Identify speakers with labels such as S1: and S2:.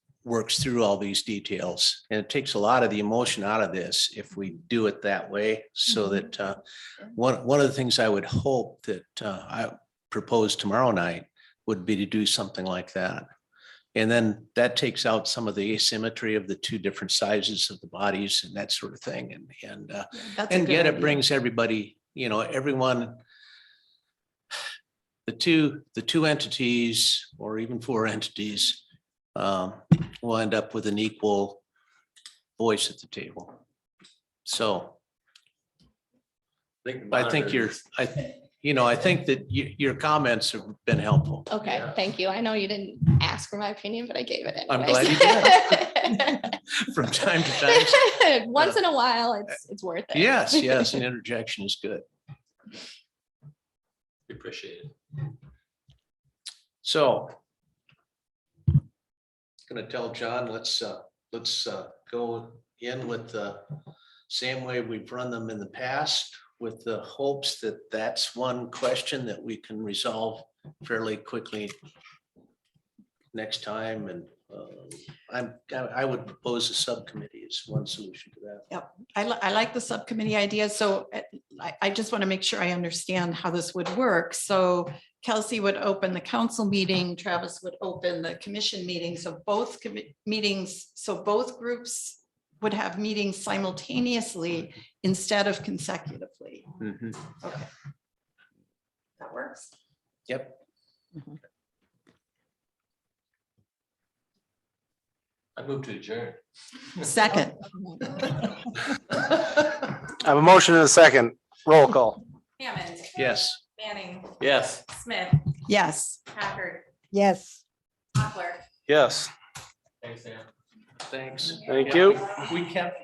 S1: works through all these details. And it takes a lot of the emotion out of this if we do it that way, so
S2: Mhm.
S1: that uh, one, one of the things I would hope that uh, I propose tomorrow night would be to do something like that. And then that takes out some of the asymmetry of the two different sizes of the bodies and that sort of thing. And, and uh,
S2: That's a
S1: and
S2: good
S1: yet it
S2: idea.
S1: brings everybody, you know, everyone. The two, the two entities or even four entities um, will end up with an equal voice at the table. So I think you're, I, th- you know, I think that you, your comments have been helpful.
S2: Okay,
S1: Yeah.
S2: thank you. I know you didn't ask for my opinion, but I gave it
S1: I'm
S2: anyways.
S1: From time to time,
S2: Once in a while, it's, it's worth it.
S1: yes, yes, an interjection is good.
S3: We Appreciate it.
S1: So. Gonna tell John, let's, uh, let's, uh, go in with the same way we've run them in the past with the hopes that that's one question that we can resolve fairly quickly next time. And, um, I'm, I would propose a subcommittee is one solution to that.
S4: I li- I like the subcommittee idea, so uh, I, I just want to make sure I understand how this would work. So Kelsey would open the council meeting, Travis would open the commission meeting, so both commi- meetings, so both groups would have meetings simultaneously instead of consecutively. Okay. That works?
S1: Yep,
S3: I move to adjourn.
S4: Second.
S5: I have a motion and a second. Roll call.
S6: Hammond,
S1: yes.
S6: Manning,
S3: Yes.
S6: Smith,
S4: Yes.
S6: Packard,
S7: Yes.
S6: Hockler.
S5: Yes,
S3: Thanks, Sam.
S1: Thanks.
S5: thank you.
S3: We kept